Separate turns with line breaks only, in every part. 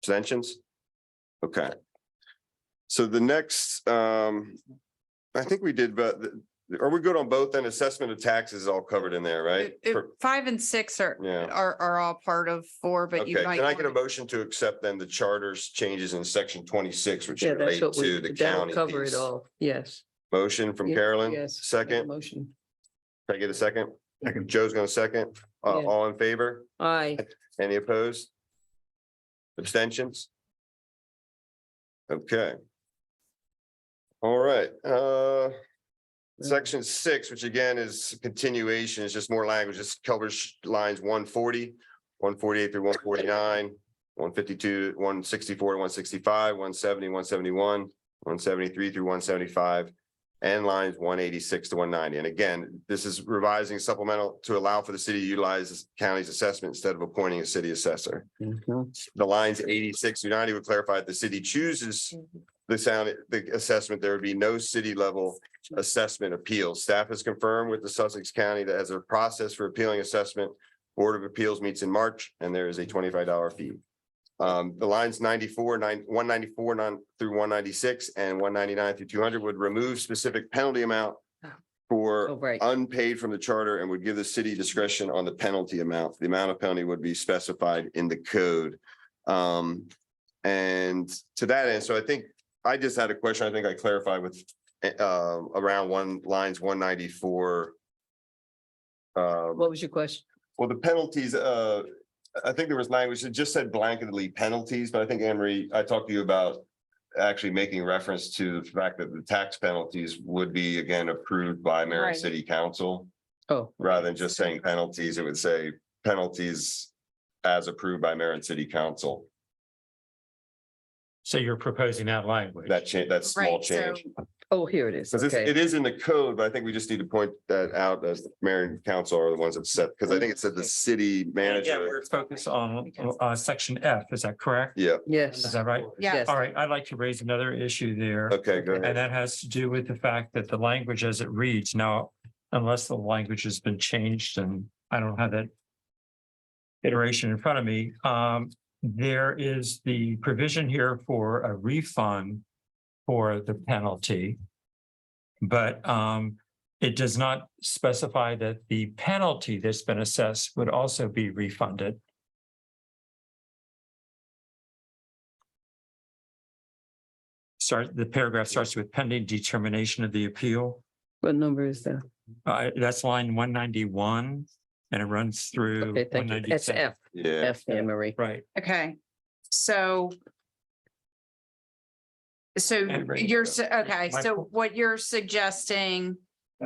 Abstentions? Okay. So the next, um, I think we did, but are we good on both? Then assessment of taxes is all covered in there, right?
It- it-
For-
Five and six are,
Yeah.
are, are all part of four, but
Okay,
you might.
can I get a
wanna-
motion to accept then the charter's changes in section twenty-six, which
Yeah,
relate
that's what
to
we,
the
that'll
county
cover
piece?
it all. Yes.
Motion from
Yeah,
Carolyn,
Yes. make a
second, can
Motion.
I get a second?
Second.
Joe's gonna second, uh,
Yeah.
all in favor?
Aye.
Any opposed? Abstentions? Okay. All right, uh. Section six, which again is continuation, it's just more language, this covers lines 140, 148 through one forty-nine. One fifty-two, one sixty-four, one sixty-five, one seventy, one seventy-one, one seventy-three through one seventy-five. And lines one eighty-six to one ninety. And again, this is revising supplemental to allow for the city to utilize this county's assessment instead of appointing a city assessor. The lines eighty-six through ninety would clarify if the city chooses the sound, the assessment, there would be no city level assessment appeals. Staff has confirmed with the Sussex County that as a process for appealing assessment, Board of Appeals meets in March and there is a twenty-five dollar fee. Um, the lines ninety-four, nine, one ninety-four, nine through one ninety-six and one ninety-nine through two hundred would remove specific penalty amount
Oh,
for
right.
unpaid from the charter and would give the city discretion on the penalty amount. The amount of penalty would be specified in the code. Um, and to that end, so I think I just had a question. I think I clarified with uh around one lines one ninety-four. Um,
What was your question?
well, the penalties, uh, I think there was language that just said blanketly penalties, but I think Anne Marie, I talked to you about actually making reference to the fact that the tax penalties would be again approved by mayor and
Right.
city council
Oh,
rather than just saying penalties, it would say penalties as approved by mayor and city council.
So you're proposing that language?
That change, that small
Right, so-
change.
oh, here it is.
Because it's,
Okay.
it is in the code, but I think we just need to point that out as the mayor and council are the ones that set, because I think it said the city
Yeah,
manager.
we're focused on uh section F, is that correct?
Yeah,
Is
Yes.
that right?
Yeah,
Yes.
All right, I'd like to raise another issue there.
okay, go
And
ahead.
that has to do with the fact that the language as it reads now, unless the language has been changed and I don't have that iteration in front of me, um, there is the provision here for a refund for the penalty. But, um, it does not specify that the penalty that's been assessed would also be refunded. Start, the paragraph starts with pending determination of the appeal.
What number is that?
Uh, that's line one ninety-one and it runs through.
Okay, thank you. That's
197.
F,
Yeah,
F, Anne Marie.
Right.
okay, so. So
And bring it
you're,
up.
su- okay,
My
so
fault.
what you're suggesting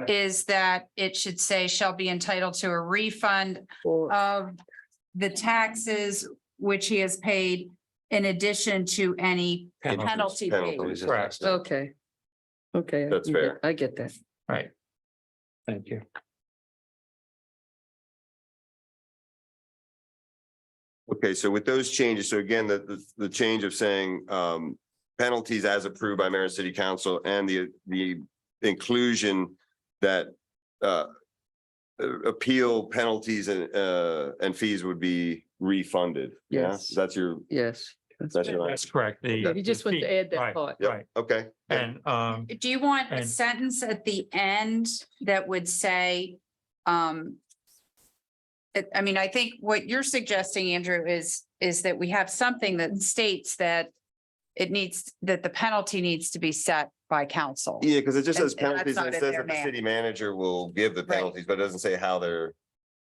is that it should say shall be entitled to a refund
Or
of the taxes which he has paid in addition to any penalty paid.
penalties.
Correct.
Okay. Okay. I
That's
get-
fair.
I get that.
Right. Thank you.
Okay, so with those changes, so again, the, the, the change of saying, um, penalties as approved by mayor and city council and the, the inclusion that, uh, uh, appeal penalties and, uh, and fees would be refunded. Yeah?
Yes.
That's your,
Yes.
that's your,
That's correct. The.
He just wants to add that
Right,
part.
Right.
Yep. okay.
And, um,
Do you want a
And-
sentence at the end that would say, um, it- I mean, I think what you're suggesting, Andrew, is, is that we have something that states that it needs, that the penalty needs to be set by council.
Yeah, because it just
And-
says
and that's
penalties, and
not
it says
in there
that the
now.
city manager will give the
Right.
penalties, but it doesn't say how they're,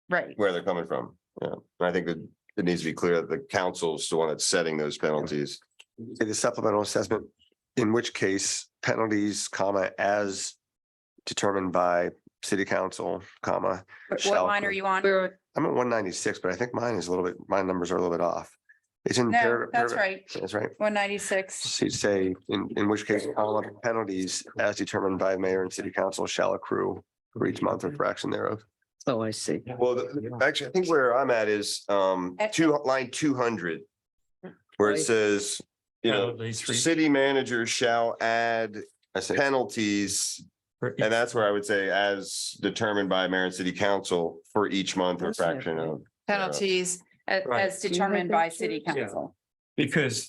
Right,
where they're coming from. Yeah, and I think that it needs to be clear that the council's the one that's setting those penalties.
say the supplemental assessment, in which case penalties, comma, as determined by city council, comma.
What- what
shall
line are
occur.
you on?
Where,
I'm at one ninety-six, but I think mine is a little bit, my numbers are a little bit off. It's in.
No,
paragraph-
that's
paragraph-
right,
That's right.
one ninety-six,
So you say, in, in which case all penalties as determined by mayor and city council shall accrue for each month or fraction thereof.
oh, I see.
Well, the- actually, I think where I'm at is um
At-
two, line two hundred. Where it
Right.
says, you know,
penalties for-
city manager shall add
I say,
penalties.
for each-
And that's where I would say as determined by mayor and city council for each month or
That's not
fraction of.
penalties a-
Right.
as
Do you have
determined by
that,
city
Sue?
Yeah.
council.
Because